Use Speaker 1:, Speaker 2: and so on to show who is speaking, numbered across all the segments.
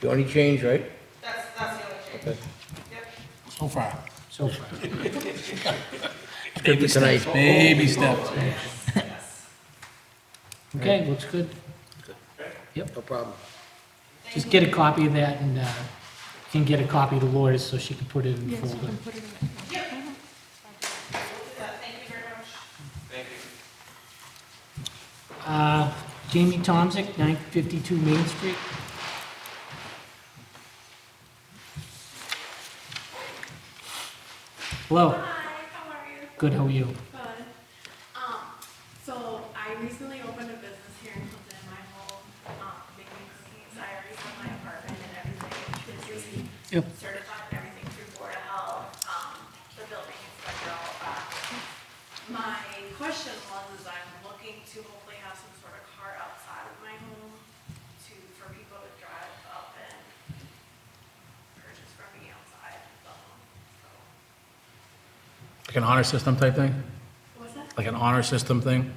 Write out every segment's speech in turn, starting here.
Speaker 1: The only change, right?
Speaker 2: That's, that's the only change. Yep.
Speaker 3: So far.
Speaker 4: So far.
Speaker 1: Baby tonight.
Speaker 3: Baby steps.
Speaker 2: Yes.
Speaker 4: Okay, looks good. Yep.
Speaker 1: No problem.
Speaker 4: Just get a copy of that and uh, can get a copy to Laura so she can put it in the folder. Uh-huh.
Speaker 2: Yep. We'll do that. Thank you very much.
Speaker 4: Uh, Jamie Tomsick, 952 Main Street.
Speaker 5: Oh.
Speaker 4: Hello,
Speaker 5: Hi, how are you?
Speaker 4: good, how are you?
Speaker 5: Good. Um, so I recently opened a business here in Clinton, my home, um, making cookies. I already have my apartment and everything, which is
Speaker 4: Yep.
Speaker 5: certified and everything through Board of Health, um, the building inspector, all that. My question was, is I'm looking to hopefully have some sort of car outside of my home to, for people to drive up and purchase from me outside the home, so.
Speaker 3: Like an honor system type thing?
Speaker 5: What's that?
Speaker 3: Like an honor system thing?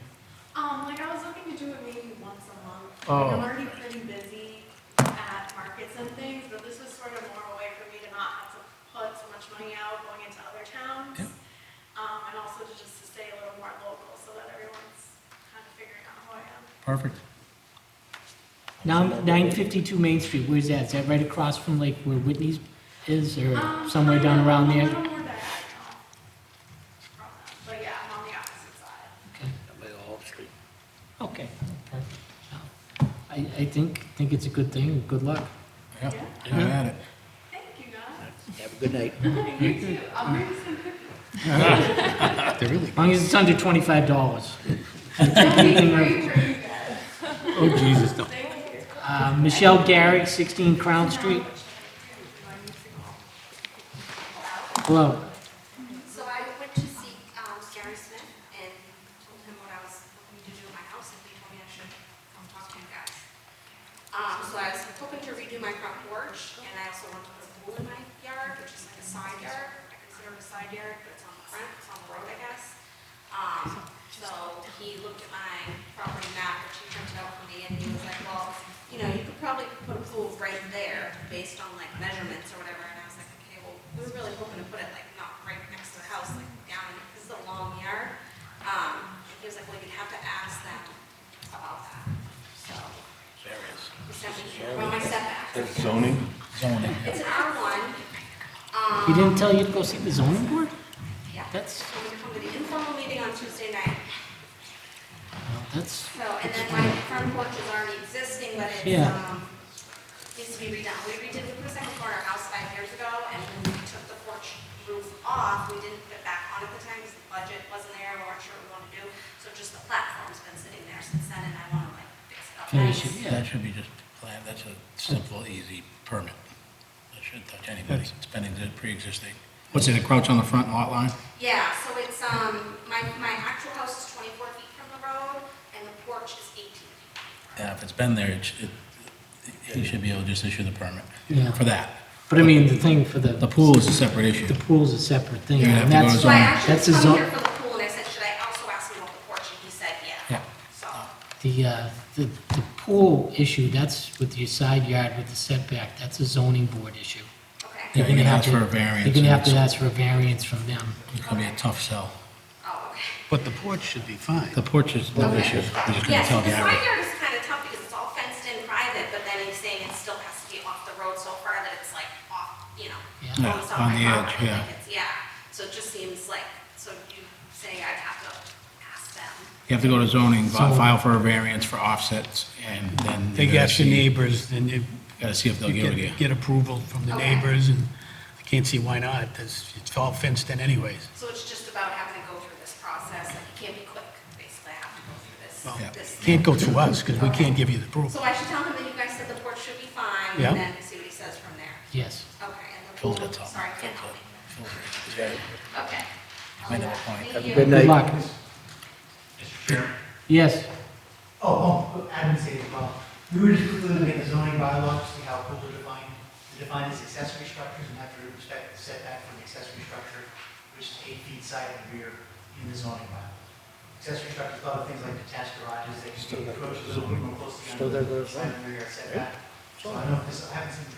Speaker 5: Um, like I was looking to do it maybe once a month.
Speaker 3: Oh.
Speaker 5: I'm already pretty busy at markets and things, but this was sort of more a way for me to not have to put so much money out going into other towns. Um, and also to just to stay a little more local so that everyone's kind of figuring out who I am.
Speaker 3: Perfect.
Speaker 4: Now, 952 Main Street, where's that? Is that right across from like where Whitney's is or
Speaker 5: Um,
Speaker 4: somewhere down
Speaker 5: I'm
Speaker 4: around
Speaker 5: A
Speaker 4: there?
Speaker 5: little more diagonal from them, but yeah, I'm on the opposite side.
Speaker 4: Okay. Okay. I, I think, think it's a good thing, good luck. Oh.
Speaker 3: Yeah, I'm at it.
Speaker 5: Thank you guys.
Speaker 1: Have a good night.
Speaker 5: You too. I'll bring you some cookies.
Speaker 4: As long as it's under twenty-five dollars.
Speaker 5: That'd be great for you guys.
Speaker 3: Oh, Jesus, no.
Speaker 5: Thank you.
Speaker 4: Uh, Michelle Gary, sixteen Crown Street. Hello.
Speaker 6: So I went to see um, Gary Smith and told him what I was looking to do in my house, and he told me I should come talk to you guys. Um, So I was hoping to redo my front porch, and I also want to put a pool in my yard, which is like a side yard. I consider it a side yard, but it's on the front, it's on the road, I guess. Um, So he looked at my property map, which he printed out for me, and he was like, well, you know, you could probably put a pool right there based on like measurements or whatever. And I was like, okay, well, we were really hoping to put it like not right next to the house, like down, this is a long yard. Um, and he was like, well, you'd have to ask them about that, so. He sent me here, well, my setback.
Speaker 3: Zoning.
Speaker 6: It's an R one,
Speaker 4: You didn't tell you to go see the zoning board?
Speaker 6: yeah.
Speaker 4: That's,
Speaker 6: So we come to the informal meeting on Tuesday night.
Speaker 4: that's,
Speaker 6: So, and then my front porch is already existing, but it's,
Speaker 4: Yeah.
Speaker 6: um, needs to be redone. We redid, we put a second floor in our house five years ago, and when we took the porch roof off, we didn't put it back on at the time, because the budget wasn't there, we weren't sure what we wanted to do. So just the platform's been sitting there since then, and I wanna like fix it up
Speaker 4: Finish it,
Speaker 6: nice.
Speaker 3: That should be just planned, that's a simple, easy permit. That shouldn't touch anybody, it's been exi- pre-existing. What's it, a crouch on the front lot line?
Speaker 6: Yeah, so it's, um, my, my actual house is twenty-four feet from the road, and the porch is eighteen feet.
Speaker 3: Yeah, if it's been there, it, should- it, you should be able to just issue the permit
Speaker 4: Yeah.
Speaker 3: for that.
Speaker 4: but I mean, the thing for the.
Speaker 3: The pool is a separate
Speaker 4: The
Speaker 3: issue.
Speaker 4: pool's a separate thing.
Speaker 3: You're gonna have to go to
Speaker 4: That's-
Speaker 6: So I
Speaker 4: That's a
Speaker 6: actually
Speaker 4: zon-
Speaker 6: come here for the pool, and I said, should I also ask him about the porch, and he said,
Speaker 3: Yeah.
Speaker 6: yeah. So.
Speaker 4: The, uh, the, the pool issue, that's with your side yard with the setback, that's a zoning board issue.
Speaker 6: Okay.
Speaker 3: Yeah, you can
Speaker 4: gonna have
Speaker 3: ask
Speaker 4: to-
Speaker 3: for a variance.
Speaker 4: You're gonna have to
Speaker 3: and
Speaker 4: ask for a variance from them.
Speaker 3: It's it's gonna be a tough sell.
Speaker 6: Oh, okay.
Speaker 7: But the porch should be fine.
Speaker 3: The porch is no
Speaker 6: Okay.
Speaker 3: issue, we're just gonna
Speaker 6: Yeah, so
Speaker 3: tell
Speaker 6: the
Speaker 3: Gary.
Speaker 6: side yard is kind of tough because it's all fenced in private, but then he's saying it still has to be off the road so far that it's like off, you know,
Speaker 4: Yeah.
Speaker 6: almost
Speaker 3: Yeah, on
Speaker 6: off my
Speaker 3: the edge,
Speaker 6: property.
Speaker 3: yeah.
Speaker 6: like it's- Yeah, so it just seems like, so you say I'd have to ask them.
Speaker 3: You have to go to zoning, fi-
Speaker 4: So-
Speaker 3: file for a variance for offsets, and then.
Speaker 7: They
Speaker 3: you gotta
Speaker 7: got the
Speaker 3: see-
Speaker 7: neighbors, and you
Speaker 3: Gotta see if they'll give it to you.
Speaker 7: get, get approval from the
Speaker 6: Okay.
Speaker 7: neighbors, and I can't see why not. It's, it's all fenced in anyways.
Speaker 6: So it's just about having to go through this process, like it can't be quick, basically, I have to go through this,
Speaker 7: Well,
Speaker 3: Yeah.
Speaker 6: this.
Speaker 7: Can't go through us, because we can't give you the
Speaker 6: So
Speaker 7: approval.
Speaker 6: I should tell him that you guys said the porch should be fine,
Speaker 7: Yeah.
Speaker 6: and then see what he says from there.
Speaker 4: Yes.
Speaker 6: Okay, and the pool,
Speaker 3: Phil's got something.
Speaker 6: sorry, can't help me. Okay.
Speaker 3: I know a point.
Speaker 6: Thank
Speaker 1: Have a
Speaker 6: you.
Speaker 1: good night.
Speaker 4: Good luck. Yes.
Speaker 8: Oh, oh, I didn't say it well. We were just looking at the zoning bylaw to see how pool are defined. They're defined as accessory structures and have to respect the setback from the accessory structure, which is eight feet side and rear in the zoning bylaw. Accessory structures, other things like detached garages, they can be approached a little bit more closely on
Speaker 1: Still there,
Speaker 8: the
Speaker 1: there's
Speaker 8: side and rear setback. So I don't know if this, I haven't seen the drawing